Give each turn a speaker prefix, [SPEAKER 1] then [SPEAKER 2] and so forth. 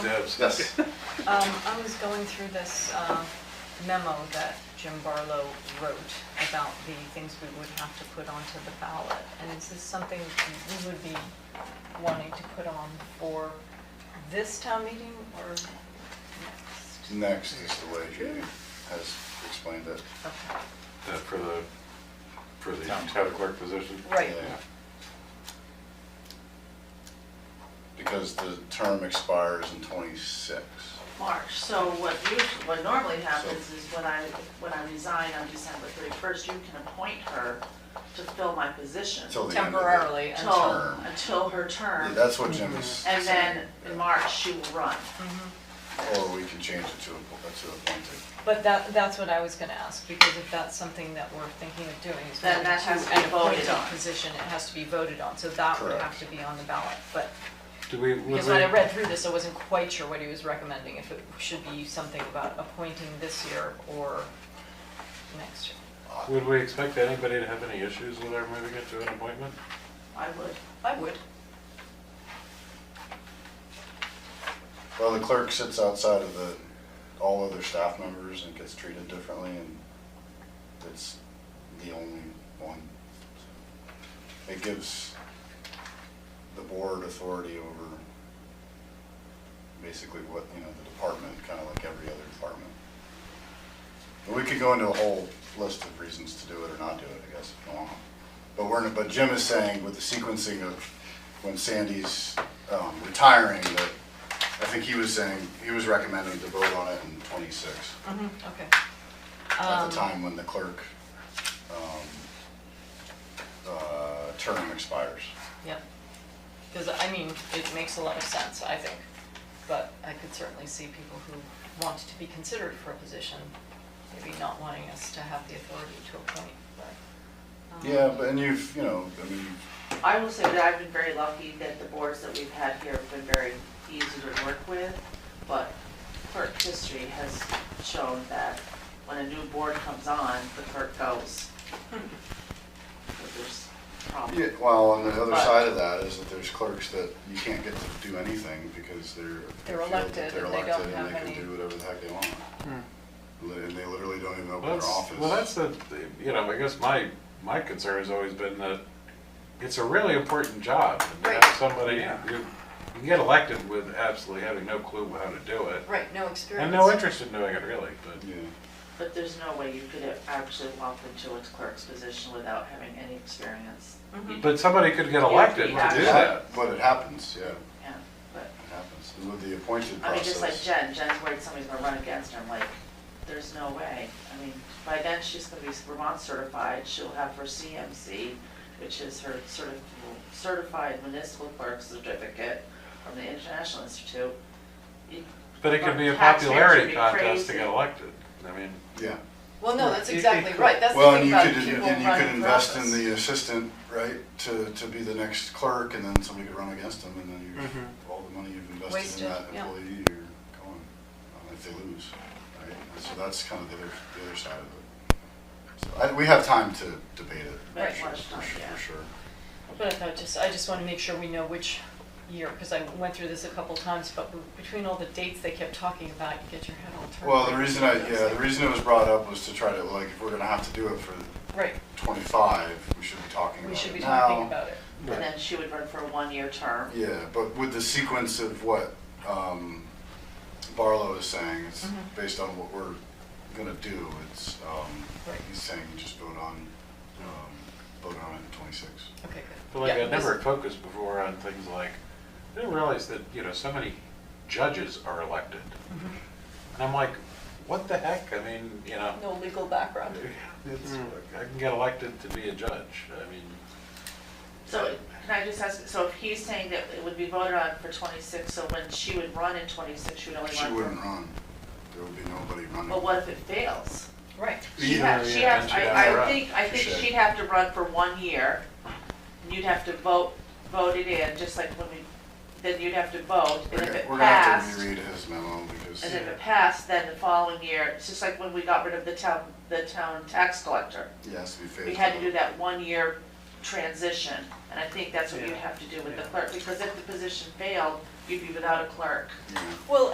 [SPEAKER 1] Yes.
[SPEAKER 2] Yes.
[SPEAKER 3] Um, I was going through this uh, memo that Jim Barlow wrote about the things we would have to put onto the ballot. And is this something we would be wanting to put on for this town meeting or next?
[SPEAKER 2] Next is the way Judy has explained it.
[SPEAKER 3] Okay.
[SPEAKER 1] That Uh, for the, for the
[SPEAKER 4] Town
[SPEAKER 1] town clerk position?
[SPEAKER 3] Right.
[SPEAKER 2] Yeah.
[SPEAKER 1] Yeah.
[SPEAKER 2] Because the term expires in twenty-six.
[SPEAKER 5] March, so what usually, what normally happens is when I, when I resign on December thirty-first, you can appoint her to fill my position.
[SPEAKER 2] Till the end of the-
[SPEAKER 3] Temporarily
[SPEAKER 5] Till-
[SPEAKER 3] until,
[SPEAKER 2] term.
[SPEAKER 5] Until her
[SPEAKER 2] Yeah,
[SPEAKER 5] term,
[SPEAKER 2] That's what Jim is.
[SPEAKER 5] and then in
[SPEAKER 2] saying.
[SPEAKER 5] March, she will run.
[SPEAKER 2] Or we can change it to, appo- to appointed.
[SPEAKER 3] but that, that's what I was gonna ask, because if that's something that we're thinking of doing, is
[SPEAKER 5] Then that has to be
[SPEAKER 3] an appointed
[SPEAKER 5] voted on.
[SPEAKER 3] position, it has to be voted on, so that would
[SPEAKER 2] Correct.
[SPEAKER 3] have to be on the ballot, but
[SPEAKER 4] Do we, would we?
[SPEAKER 3] Because when I read through this, I wasn't quite sure what he was recommending, if it should be something about appointing this year or next year.
[SPEAKER 4] Would
[SPEAKER 2] Well,
[SPEAKER 4] we expect anybody to have any issues with our moving it to an appointment?
[SPEAKER 5] I would.
[SPEAKER 3] I would.
[SPEAKER 2] the clerk sits outside of the, all other staff members and gets treated differently and it's the only one. It gives the board authority over basically what, you know, the department, kind of like every other department. But we could go into a whole list of reasons to do it or not do it, I guess, if you want. But we're, but Jim is saying with the sequencing of when Sandy's um, retiring, that I think he was saying, he was recommending to vote on it in twenty-six,
[SPEAKER 3] Mm-hmm. Okay.
[SPEAKER 2] at
[SPEAKER 3] Um,
[SPEAKER 2] the time when the clerk, um, uh, term expires.
[SPEAKER 3] Yep. Because, I mean, it makes a lot of sense, I think. But I could certainly see people who want to be considered for a position, maybe not wanting us to have the authority to appoint, but. um,
[SPEAKER 2] Yeah, but, and you've, you know, I mean,
[SPEAKER 5] I will say that I've been very lucky that the boards that we've had here have been very easy to work with, but clerk history has shown that when a new board comes on, the clerk goes. "Hmm, But there's
[SPEAKER 2] Yeah,
[SPEAKER 5] problems.
[SPEAKER 2] well, on the other
[SPEAKER 5] But-
[SPEAKER 2] side of that is that there's clerks that you can't get to do anything because they're. feel that
[SPEAKER 3] They're elected
[SPEAKER 2] They're
[SPEAKER 3] and they don't
[SPEAKER 2] elected
[SPEAKER 3] have
[SPEAKER 2] and they can
[SPEAKER 3] any-
[SPEAKER 2] do whatever the heck they want. Li- And they literally don't
[SPEAKER 4] Hmm.
[SPEAKER 2] even open
[SPEAKER 4] Well,
[SPEAKER 2] their
[SPEAKER 4] that's,
[SPEAKER 2] office.
[SPEAKER 4] well, that's the, you know, I guess my, my concern has always been that it's a really important job. and to have
[SPEAKER 3] Right.
[SPEAKER 4] Somebody, who- you can get elected with absolutely having no clue how to do it,
[SPEAKER 3] Right, no experience.
[SPEAKER 4] and no interest in doing it really, but.
[SPEAKER 2] Yeah,
[SPEAKER 5] But there's no way you could actually walk into a clerk's position without having any experience.
[SPEAKER 3] Mhm.
[SPEAKER 4] But somebody could get
[SPEAKER 5] Yeah,
[SPEAKER 4] elected to do
[SPEAKER 5] yeah.
[SPEAKER 4] that.
[SPEAKER 2] But it happens, yeah,
[SPEAKER 5] Yeah, but,
[SPEAKER 2] it happens. And With the appointed
[SPEAKER 5] I mean, just like
[SPEAKER 2] process.
[SPEAKER 5] Jen, Jen's worried somebody's gonna run against her, I'm like, there's no way. I mean, by then she's gonna be Vermont certified, she'll have her CMC, which is her certi- certified municipal clerk certificate from the International Institute. You-
[SPEAKER 4] But it could be a
[SPEAKER 5] Taxpayers would
[SPEAKER 4] popularity
[SPEAKER 5] be
[SPEAKER 4] contest to get
[SPEAKER 5] crazy.
[SPEAKER 4] elected. I mean,
[SPEAKER 2] Yeah.
[SPEAKER 3] Well, no, that's
[SPEAKER 4] It- it
[SPEAKER 3] exactly
[SPEAKER 4] could-
[SPEAKER 3] right, that's the
[SPEAKER 2] Well, and
[SPEAKER 3] thing
[SPEAKER 2] you
[SPEAKER 3] about
[SPEAKER 2] could,
[SPEAKER 3] people running for
[SPEAKER 2] and you could invest in
[SPEAKER 3] office.
[SPEAKER 2] the assistant, right, to, to be the next clerk and then somebody could run against them and then you, all the money you've invested
[SPEAKER 3] Wasted,
[SPEAKER 2] in that
[SPEAKER 3] yeah.
[SPEAKER 2] employee, you're going, uh, if they lose, right? And So that's kind of the other, the other side of it. So I, we have time to debate it. for
[SPEAKER 5] Right.
[SPEAKER 2] sure,
[SPEAKER 5] Much time,
[SPEAKER 2] For sure,
[SPEAKER 5] yeah.
[SPEAKER 2] for sure.
[SPEAKER 3] But I thought just, I just want to make sure we know which year, because I went through this a couple times, but between all the dates they kept talking about, you get your head all turned.
[SPEAKER 2] Well, the reason I, yeah, the reason it was brought up was to try to, like, if we're gonna have to do it for
[SPEAKER 3] Right,
[SPEAKER 2] twenty-five, we should be talking
[SPEAKER 3] we
[SPEAKER 2] about
[SPEAKER 3] should be
[SPEAKER 2] it
[SPEAKER 3] talking
[SPEAKER 2] now.
[SPEAKER 3] about it.
[SPEAKER 5] And then she would run for a one-year term.
[SPEAKER 2] Yeah, but with the sequence of what, um, Barlow is saying, it's
[SPEAKER 3] Mhm.
[SPEAKER 5] Mm-hmm.
[SPEAKER 2] based on what we're gonna do, it's, um,
[SPEAKER 3] Right.
[SPEAKER 2] he's saying just vote on, um, vote on it in twenty-six.
[SPEAKER 3] Okay,
[SPEAKER 4] But
[SPEAKER 3] good.
[SPEAKER 4] like
[SPEAKER 3] Yeah,
[SPEAKER 4] I'd never focused before on things like, I didn't realize that, you know, so many judges are elected.
[SPEAKER 5] Mm-hmm.
[SPEAKER 3] Mhm.
[SPEAKER 4] And I'm like, what the heck? I mean, you know,
[SPEAKER 3] this- No legal background.
[SPEAKER 4] it's, I can get elected to be a judge. I mean,
[SPEAKER 5] So can I just ask, so if he's saying that it would be voted on for twenty-six, so when she would run in twenty-six, she would only
[SPEAKER 2] She
[SPEAKER 5] run for?
[SPEAKER 2] wouldn't run, there would be nobody
[SPEAKER 5] But
[SPEAKER 2] running.
[SPEAKER 5] what if it fails?
[SPEAKER 3] Right,
[SPEAKER 5] She
[SPEAKER 4] Yeah,
[SPEAKER 5] has, she
[SPEAKER 4] yeah,
[SPEAKER 5] has,
[SPEAKER 4] and she'd
[SPEAKER 5] I,
[SPEAKER 4] have to
[SPEAKER 5] I
[SPEAKER 4] run.
[SPEAKER 5] think, I
[SPEAKER 2] She
[SPEAKER 5] think
[SPEAKER 2] should.
[SPEAKER 5] she'd have to run for one year. You'd have to vote, vote it in, just like when we, then you'd have to vote, and
[SPEAKER 2] We're
[SPEAKER 5] if
[SPEAKER 2] gonna-
[SPEAKER 5] it
[SPEAKER 2] we're gonna have
[SPEAKER 5] passed,
[SPEAKER 2] to
[SPEAKER 5] and
[SPEAKER 2] reread his memo because.
[SPEAKER 5] if it passed, then the following year, it's just like when we got rid of the town, the town tax collector.
[SPEAKER 2] Yes, we failed.
[SPEAKER 5] We had to do that one year transition. And I think that's what you
[SPEAKER 6] Yeah.
[SPEAKER 5] have to do with the
[SPEAKER 6] Yeah.
[SPEAKER 5] clerk, because if the position failed, you'd be without a clerk.
[SPEAKER 2] Yeah.
[SPEAKER 3] Well,